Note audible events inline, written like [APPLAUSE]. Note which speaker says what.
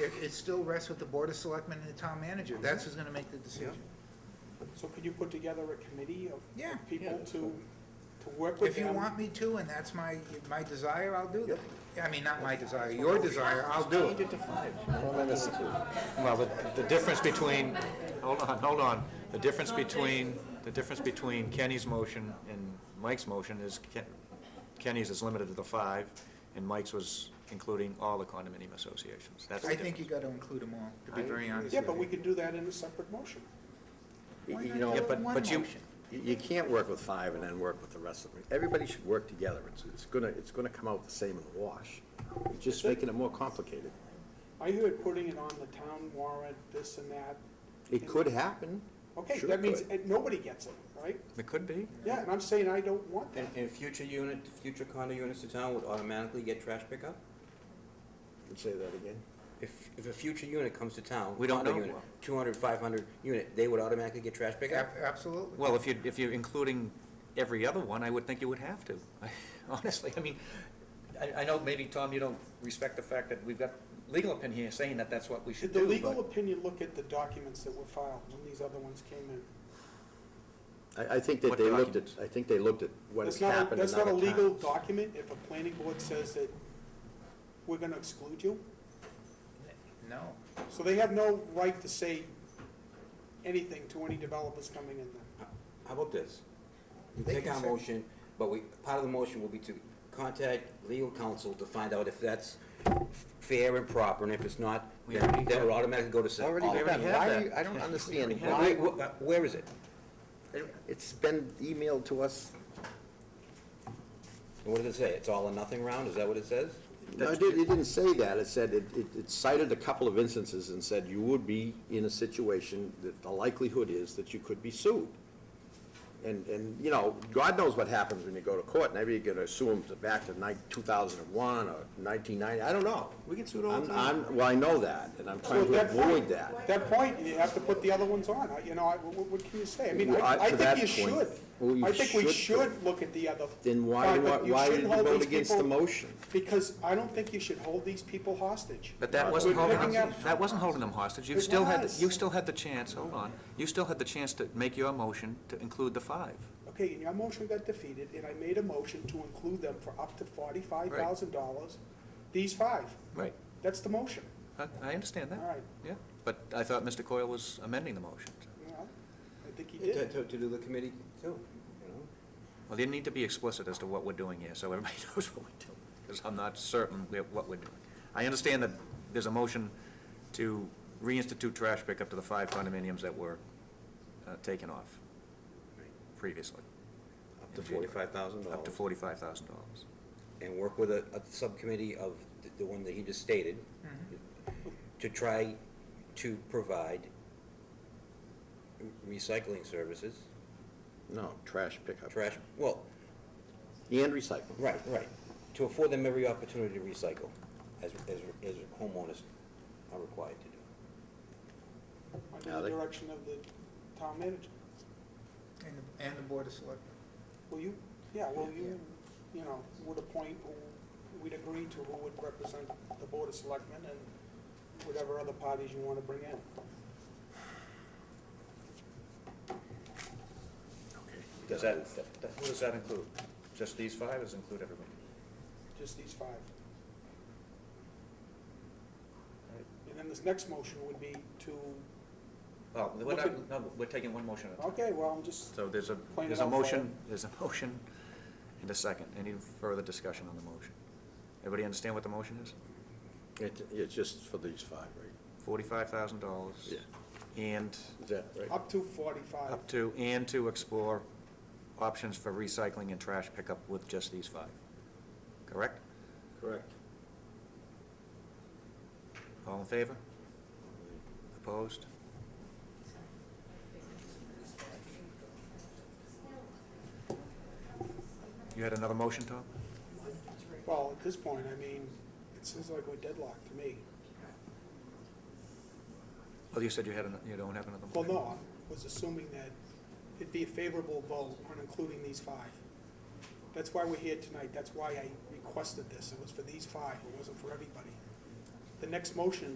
Speaker 1: it, it still rests with the Board of Selectmen and the town manager. That's who's gonna make the decision.
Speaker 2: So could you put together a committee of
Speaker 1: Yeah.
Speaker 2: of people
Speaker 3: that's
Speaker 2: to,
Speaker 3: fine.
Speaker 2: to work with
Speaker 1: If
Speaker 2: them?
Speaker 1: you want me to, and that's my, my desire, I'll do that. I mean, not my desire, your desire, I'll do
Speaker 2: Change
Speaker 1: it.
Speaker 2: it to five.
Speaker 3: Well, then it's-
Speaker 4: Well, the, the difference between, hold on, hold on, the difference between, the difference between Kenny's motion and Mike's motion is Ken- Kenny's is limited to the five, and Mike's was including all the condominium associations. That's the
Speaker 1: I think you
Speaker 4: difference.
Speaker 1: gotta include them all, to be very honest with you.
Speaker 2: Yeah, but we could do that in a separate motion.
Speaker 3: You
Speaker 1: Why
Speaker 3: you
Speaker 1: not
Speaker 3: know,
Speaker 1: do
Speaker 4: Yeah,
Speaker 1: it
Speaker 4: but-
Speaker 1: in one
Speaker 4: but you-
Speaker 1: motion?
Speaker 3: you you can't work with five and then work with the rest of them. Everybody should work together. It's, it's gonna, it's gonna come out the same in the wash. You're just making it more complicated.
Speaker 2: I heard putting it on the town warrant, this and that.
Speaker 3: It could happen.
Speaker 2: Okay,
Speaker 3: Sure
Speaker 2: that means
Speaker 3: could.
Speaker 2: it- nobody gets it, right?
Speaker 4: It could be.
Speaker 2: Yeah, and I'm saying I don't want
Speaker 5: And,
Speaker 2: that.
Speaker 5: and future unit, future condo units to town would automatically get trash pickup?
Speaker 3: Can Say that again.
Speaker 5: If, if a future unit comes to town,
Speaker 4: We don't
Speaker 5: condo
Speaker 4: know.
Speaker 5: unit, 200, 500 unit, they would automatically get trash pickup?
Speaker 1: Ab- Absolutely.
Speaker 4: Well, if you, if you're including every other one, I would think you would have to, [LAUGHS] honestly. I mean, I, I know maybe, Tom, you don't respect the fact that we've got legal opinion here saying that that's what we should
Speaker 2: Did the
Speaker 4: do,
Speaker 2: legal
Speaker 4: but
Speaker 2: opinion look at the documents that were filed when these other ones came in?
Speaker 3: I, I think that
Speaker 4: What
Speaker 3: they looked at,
Speaker 4: documents?
Speaker 3: I think they looked at what has
Speaker 2: That's not a-
Speaker 3: happened in
Speaker 2: That's not a
Speaker 3: other
Speaker 2: legal
Speaker 3: towns.
Speaker 2: document if a planning board says that we're gonna exclude you?
Speaker 1: No.
Speaker 2: So they have no right to say anything to any developers coming in there.
Speaker 5: How about this? We
Speaker 1: They
Speaker 5: Take
Speaker 1: can
Speaker 5: our
Speaker 1: say-
Speaker 5: motion, but we, part of the motion will be to contact legal counsel to find out if that's fair and proper, and if it's not,
Speaker 4: We already
Speaker 5: then then
Speaker 4: have-
Speaker 5: it'll automatically go to se-
Speaker 3: Already
Speaker 5: all-
Speaker 4: we already
Speaker 3: done.
Speaker 4: have
Speaker 3: Why,
Speaker 4: that.
Speaker 3: are you- I don't understand
Speaker 4: have
Speaker 5: Why-
Speaker 3: why,
Speaker 5: wh- uh, where is it?
Speaker 3: it's been emailed to us.
Speaker 5: And What does it say? It's all or nothing round, is that what it says?
Speaker 3: No, it didn't, it didn't say that. It said, it, it- it cited a couple of instances and said you would be in a situation that the likelihood is that you could be sued. And, and, you know, God knows what happens when you go to court. Maybe you're gonna sue them to back to nine, two thousand and one or nineteen ninety, I don't know.
Speaker 5: We get sued all the
Speaker 3: I'm-
Speaker 5: time.
Speaker 3: I'm, well, I know that, and I'm trying to
Speaker 2: at that point-
Speaker 3: avoid that.
Speaker 2: At that point, you have to put the other ones on, I- you know, I- what, what can you say? I mean,
Speaker 3: Well, I-
Speaker 2: I, I
Speaker 3: to
Speaker 2: think you
Speaker 3: that point,
Speaker 2: should.
Speaker 3: well, you
Speaker 2: I think we
Speaker 3: should put-
Speaker 2: should look at the other.
Speaker 3: Then why,
Speaker 2: five,
Speaker 3: why,
Speaker 2: but you
Speaker 3: why did
Speaker 2: shouldn't
Speaker 3: you
Speaker 2: hold
Speaker 3: vote
Speaker 2: these
Speaker 3: against the
Speaker 2: people-
Speaker 3: motion?
Speaker 2: Because I don't think you should hold these people hostage.
Speaker 4: But that wasn't
Speaker 2: We're
Speaker 4: holding
Speaker 2: picking
Speaker 4: them,
Speaker 2: up-
Speaker 4: that wasn't holding them hostage. You
Speaker 2: It
Speaker 4: still had,
Speaker 2: was.
Speaker 4: you still had the chance, hold on, you still had the chance to make your motion to include the five.
Speaker 2: Okay, and your motion got defeated, and I made a motion to include them for up to forty-five thousand dollars, these five.
Speaker 4: Right.
Speaker 2: That's the motion,
Speaker 4: I, I understand
Speaker 2: all
Speaker 4: that,
Speaker 2: right.
Speaker 4: yeah. But I thought Mr. Coyle was amending the motion.
Speaker 2: Well, I think he
Speaker 5: To,
Speaker 2: did.
Speaker 5: to, to do the committee too, you know?
Speaker 4: Well, you need to be explicit as to what we're doing here, so everybody [LAUGHS] knows what we're doing, because I'm not certain we- what we're doing. I understand that there's a motion to reinstitute trash pickup to the five condominiums that were uh, taken off previously.
Speaker 5: Up to forty-five thousand dollars.
Speaker 4: Up to forty-five thousand dollars.
Speaker 5: and work with a, a subcommittee of the, the one that he just stated, to try to provide recycling services,
Speaker 3: No, trash pickup.
Speaker 5: trash, well,
Speaker 3: And recycling.
Speaker 5: right, right, to afford them every opportunity to recycle, as, as, as homeowners are required to do.
Speaker 2: Under the
Speaker 3: Alec?
Speaker 2: direction of the town manager.
Speaker 1: And, the- and the Board of Selectmen.
Speaker 2: Well, you, yeah, well, you, you know, would appoint who, we'd agree to who would represent the Board of Selectmen and whatever other parties you want to bring in.
Speaker 4: Does that, who does that include? Just these five, or does it include everybody?
Speaker 2: Just these five. And then this next motion would be to,
Speaker 4: Well, we're
Speaker 2: Look
Speaker 4: not,
Speaker 2: at-
Speaker 4: no, we're taking one motion at a time.
Speaker 2: okay, well, I'm just,
Speaker 4: So there's a,
Speaker 2: Point it
Speaker 4: there's a
Speaker 2: out for
Speaker 4: motion,
Speaker 2: them.
Speaker 4: there's a motion and a second. Any further discussion on the motion? Everybody understand what the motion is?
Speaker 3: It, it's just for these five, right?
Speaker 4: Forty-five thousand dollars.
Speaker 3: Yeah.
Speaker 4: And
Speaker 3: Is that right?
Speaker 2: up to forty-five.
Speaker 4: up to, and to explore options for recycling and trash pickup with just these five. Correct?
Speaker 3: Correct.
Speaker 4: All in favor? Opposed? You had another motion, Tom?
Speaker 2: Well, at this point, I mean, it seems like we're deadlocked to me.
Speaker 4: Oh, you said you had, an- you don't have another
Speaker 2: Well,
Speaker 4: motion?
Speaker 2: no, I was assuming that it'd be a favorable vote on including these five. That's why we're here tonight, that's why I requested this, it was for these five, it wasn't for everybody. The next motion